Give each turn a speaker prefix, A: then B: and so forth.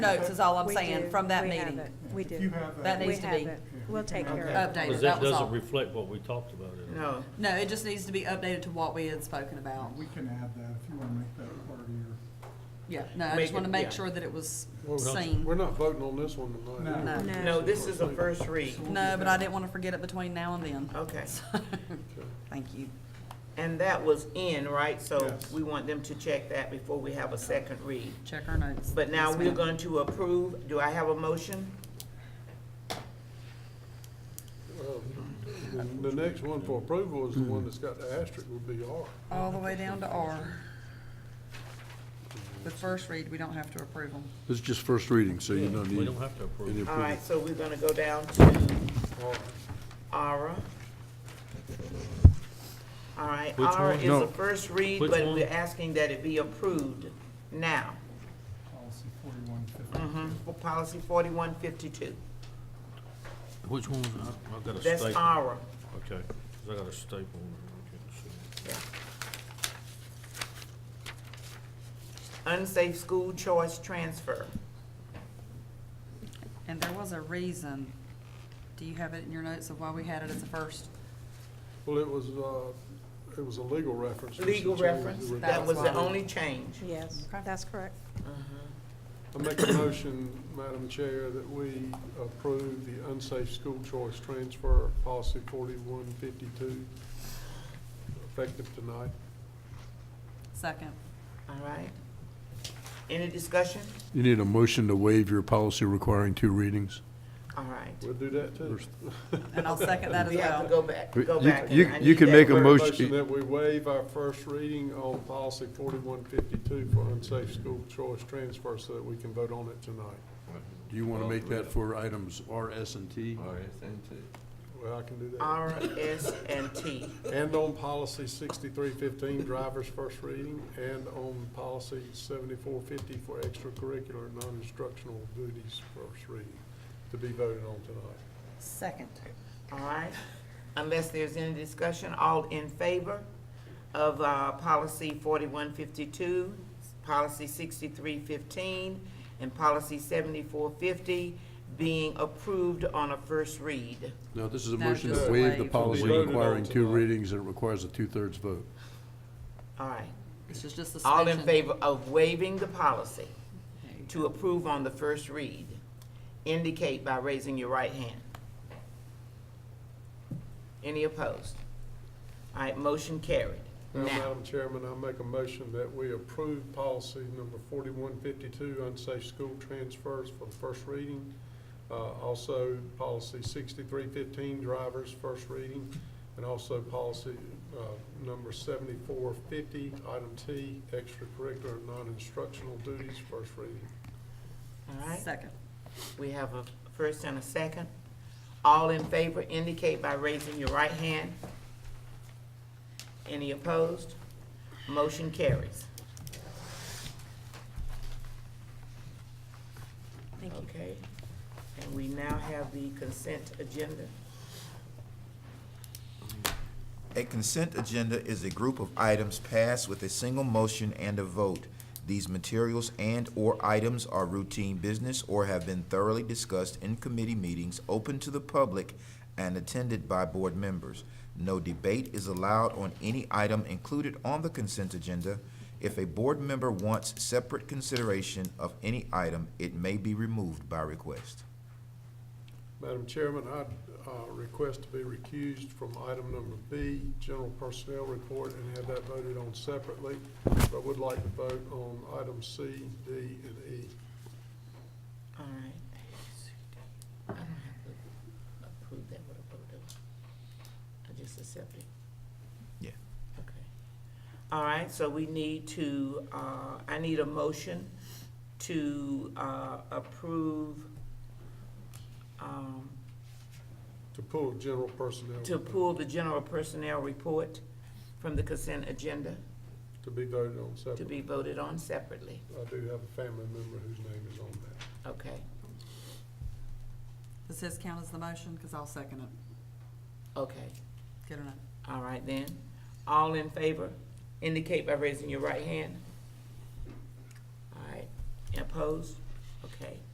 A: notes is all I'm
B: We
A: saying
B: do.
A: from that
B: We have
A: meeting.
B: it. We do.
C: If you have that.
A: That
B: We
A: needs to
B: have
A: be
B: it. We'll take care of it.
A: Updated,
D: Because
A: that
D: that
A: was all.
D: doesn't reflect what we talked about. at all.
E: No,
A: No, it just needs to be updated to what we had spoken about.
C: We can add that if you want to make that part of your,
A: Yeah, no, I
E: Make
A: just
E: it-
A: want to make
E: yeah.
A: sure that it was
F: Well, we're not-
A: seen.
F: We're not voting on this one tonight.
A: No,
C: No.
B: No.
E: no, this is a first read.
A: no, but I didn't want to forget it between now and then.
E: Okay.
A: So, Thank you.
E: And that was in, right? So
C: Yes.
E: we want them to check that before we have a second read.
A: Check our notes.
E: But now
A: Yes,
E: we're
A: ma'am.
E: going to approve. Do I have a motion?
F: The the next one for approval is the one that's got the asterisk would be R.
A: All the way down to R. The first read, we don't have to approve them.
G: This is just first reading, so you don't
D: We
G: need
D: don't have to approve.
G: any
E: All
G: approval.
E: right, so we're gonna go down to
F: R.
E: Ara. All right,
D: Which
E: Ara
D: one?
E: is
G: No.
E: a first read,
D: Which
E: but
D: one?
E: we're asking that it be approved now. Mm-hmm.
C: policy forty-one fifty.
E: For policy forty-one fifty-two.
D: Which one was that? I've got a
E: That's
D: staple.
E: Ara.
D: Okay, 'cause I got a staple. I can't see.
E: Unsafe school choice transfer.
A: And there was a reason. Do you have it in your notes of why we had it as a first?
F: Well, it was, uh, it was a legal reference. Mr.
E: Legal
F: Chairman.
E: reference,
F: It was-
E: that was the
A: That was-
E: only change. Uh-huh.
B: Yes, that's correct.
F: I make a motion, Madam Chair, that we approve the unsafe school choice transfer policy forty-one fifty-two effective tonight.
A: Second.
E: All right. Any discussion?
G: You need a motion to waive your policy requiring two readings?
E: All right.
F: We'll do that too.
A: And I'll second that as
E: We have to
A: well.
E: go back,
G: We-
E: go
G: you-
E: back. and
G: you-
E: I
G: you
E: need
G: can
E: that
G: make a
E: word.
G: mo- Motion-
F: Motion that we waive our first reading on policy forty-one fifty-two for unsafe school choice transfer so that we can vote on it tonight.
G: Do you want to make that for items R, S, and T?
D: Uh,
F: Well, I can do that.
E: R, S, and T.
F: And on policy sixty-three fifteen, driver's first reading, and on policy seventy-four fifty for extracurricular and non-instructional duties first reading to be voted on tonight.
A: Second.
E: All right. Unless there's any discussion, all in favor of uh, policy forty-one fifty-two, policy sixty-three fifteen, and policy seventy-four fifty being approved on a first read.
G: No, this is a
A: No,
G: motion
A: just
G: to waive the
A: waive.
G: policy
F: Voted on
G: requiring two
F: tonight.
G: readings, and it requires a two-thirds vote.
E: All right.
A: This is just the
E: All in
A: suspension.
E: favor of waiving the policy to approve on the first read, indicate by raising your right hand. Any opposed? All right, motion carried.
F: Now,
E: Now,
F: Madam Chairman, I make a motion that we approve policy number forty-one fifty-two, unsafe school transfers for the first reading. Uh, also, policy sixty-three fifteen, drivers, first reading, and also policy, uh, number seventy-four fifty, item T, extracurricular and non-instructional duties, first reading.
E: all right,
A: Second.
E: we have a first and a second. All in favor indicate by raising your right hand. Any opposed? Motion carries.
B: Thank you.
E: Okay, and we now have the consent agenda.
H: A consent agenda is a group of items passed with a single motion and a vote. These materials and/or items are routine business or have been thoroughly discussed in committee meetings open to the public and attended by board members. No debate is allowed on any item included on the consent agenda. If a board member wants separate consideration of any item, it may be removed by request.
F: Madam Chairman, I request to be recused from item number B, General Personnel Report, and have that voted on separately, but would like to vote on item C, D, and E.
E: All right. I don't have to approve that with a vote, do I? I just accept it?
H: Yeah.
E: Okay. All right, so we need to, uh, I need a motion to, uh, approve, um,
F: To pull General Personnel
E: to pull the general personnel report from the consent agenda
F: to be voted on
E: to
F: separately.
E: be voted on separately,
F: I do have a family member whose name is on that.
E: okay?
A: Does his count as the motion? Because I'll second it.
E: Okay,
A: Good enough.
E: all right then. All in favor, indicate by raising your right hand. All right, opposed? Okay, Okay.